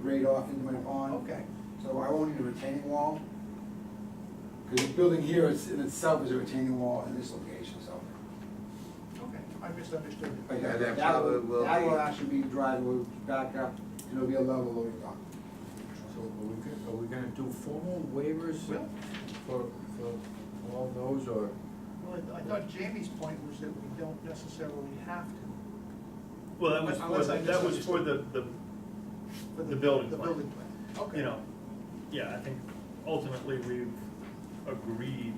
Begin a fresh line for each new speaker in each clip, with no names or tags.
straight off into my pond.
Okay.
So I won't need a retaining wall. Because the building here is, in itself is a retaining wall in this location, so.
Okay, I misunderstood.
Oh,
But
Yeah,
that,
that
that
will-
will,
will
that will
be-
actually be driveway back up, and it'll be a level loading dock.
So are we gonna, are we gonna do formal waivers
Well,
for, for all those, or?
well, I thought Jamie's point was that we don't necessarily have to.
Well, that was
Unless
for,
I
the- that was for the, the,
for
The building
The
plan.
building plan, okay.
you know, yeah, I think ultimately we've agreed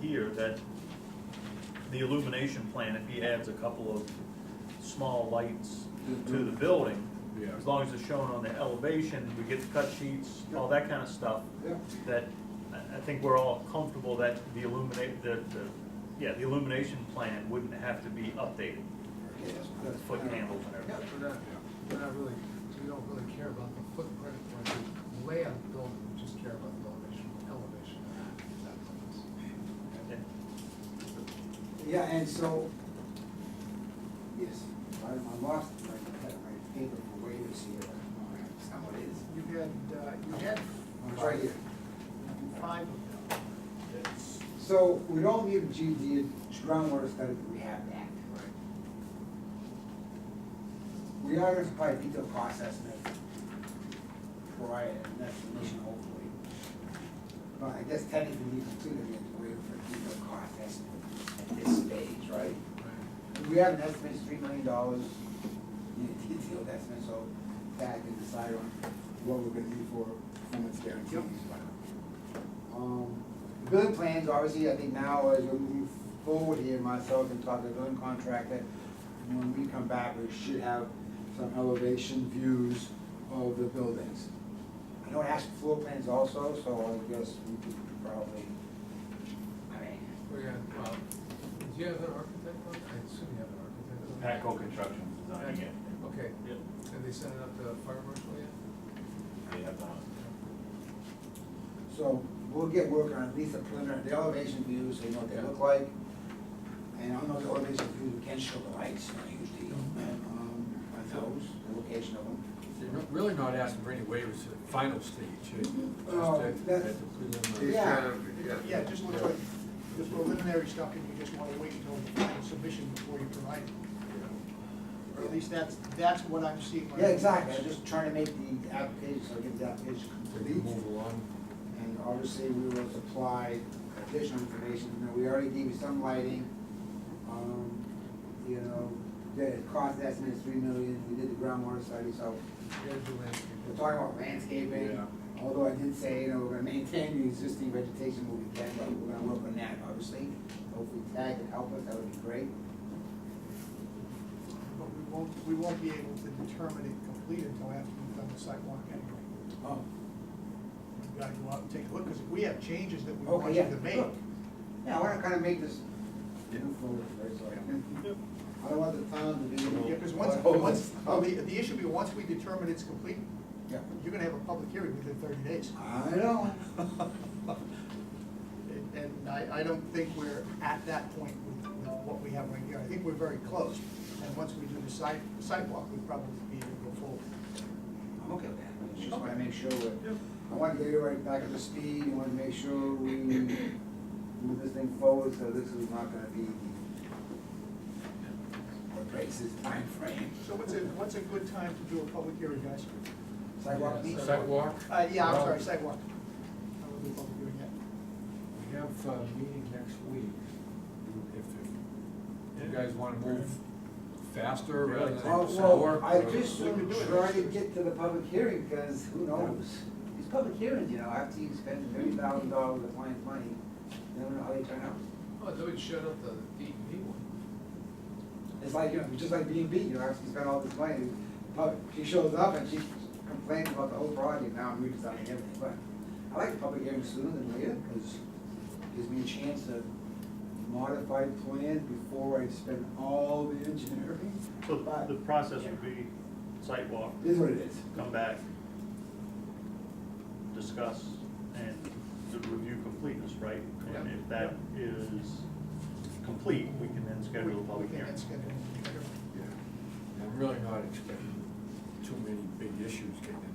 here that the illumination plan, if he adds a couple of small lights to the building,
Yeah.
as long as it's shown on the elevation, we get the cut sheets, all that kind of stuff,
Yeah.
that I, I think we're all comfortable that the illuminate, that, the, yeah, the illumination plan wouldn't have to be updated,
Okay, that's-
with
that's-
foot candles and
Yeah,
everything.
we're not, we're not really, we don't really care about the footprint or the layout of the building, we just care about the elevation, elevation.
And-
Yeah, and so, yes, I I lost my, my paper for waivers here. It's not what it is.
You had, uh, you had
It's right here.
five of them. That's-
So we don't need a GD groundwater study, but we have that. We are gonna supply a detailed cost estimate prior, and that's the mission hopefully. But I guess technically we consider it as waiver for a detailed cost estimate at this stage, right? We have an estimate, it's three million dollars, you know, detailed estimate, so that can decide on what we're gonna do for performance guarantees. Um, the Building plans, obviously, I think now as we move forward here, myself and talk to the building contractor, when we come back, we should have some elevation views of the buildings. I know it has floor plans also, so I guess we could probably, I mean,
We had, um, do you have an architect on, I assume you have an architect on?
Patco Construction's designing it.
Okay,
yeah.
have they sent it up to the fire marshal yet?
They have, uh,
So we'll get working on at least the preliminary, the elevation views, so you know what they look like. And on those elevation views, we can show the lights, not a huge deal, um, on those, the location of them.
You're not- really not asking for any waivers at the final stage, eh? just
Oh,
at,
that's-
at the preliminary.
Yeah.
Yeah, it just looks like, the preliminary stuff, and you just wanna wait until the final submission before you provide it. Or at least that's, that's what I'm seeing. when I-
Yeah, exactly, I'm just trying to make the application, so get the application
They can
complete.
move along.
And obviously, we will supply additional information, you know, we already gave you some lighting, um, you know, the cost estimate is three million, we did the groundwater study, so
You gotta do landscape.
We're talking about landscaping,
Yeah.
although I did say, you know, we're gonna maintain the existing vegetation where we can, but we're gonna work on that, obviously. Hopefully Tag can help us, that would be great.
But we won't, we won't be able to determine it complete until after we've done the sidewalk anyway.
Oh.
We've got to go out and take a look, because we have changes that we want
Okay,
you
Oh, yeah.
to make.
sure. Yeah, I wanna kinda make this move forward, right, so. I don't want the town to be.
Yeah, because once, once, well, the, the issue be, once we determine it's complete,
Yeah.
you're gonna have a public hearing within thirty days.
I know.
And- And I, I don't think we're at that point with with what we have right here. I think we're very close. And once we do the side, sidewalk, we'd probably be able to go forward.
I'm okay with that, I just wanna make sure we're, I wanna get everybody back up to speed, I wanna make sure we move this thing forward, so this is not gonna be what breaks this timeframe.
So what's a, what's a good time to do a public hearing, guys?
Sidewalk
Yeah,
meets.
Sidewalk,
Uh, yeah, I'm
Well-
sorry, sidewalk. I will do a public hearing yet.
we have a meeting next week, if, if you guys wanna move faster rather than
Well,
slower.
Oh, well, I
or-
just
We can do it.
try to get to the public hearing, because who knows? These public hearings, you know, after you spend thirty thousand dollars of client's money, you don't know how they turn out.
Oh, they would shut up the DEP one.
It's like, you know, just like B and B, you know, after you spend all this money, pub- she shows up and she complains about the whole project, now I'm redesigning everything, but I like the public hearing sooner than later, because it gives me a chance to modify plans before I spend all the engineering.
So
But
the process would be site walk,
It is what it is.
come back, discuss, and the review completeness, right? And
Yeah.
if that is complete, we can then schedule a
We
public
can
hearing.
then schedule a public hearing.
Yeah, I'm really not expecting too many big issues getting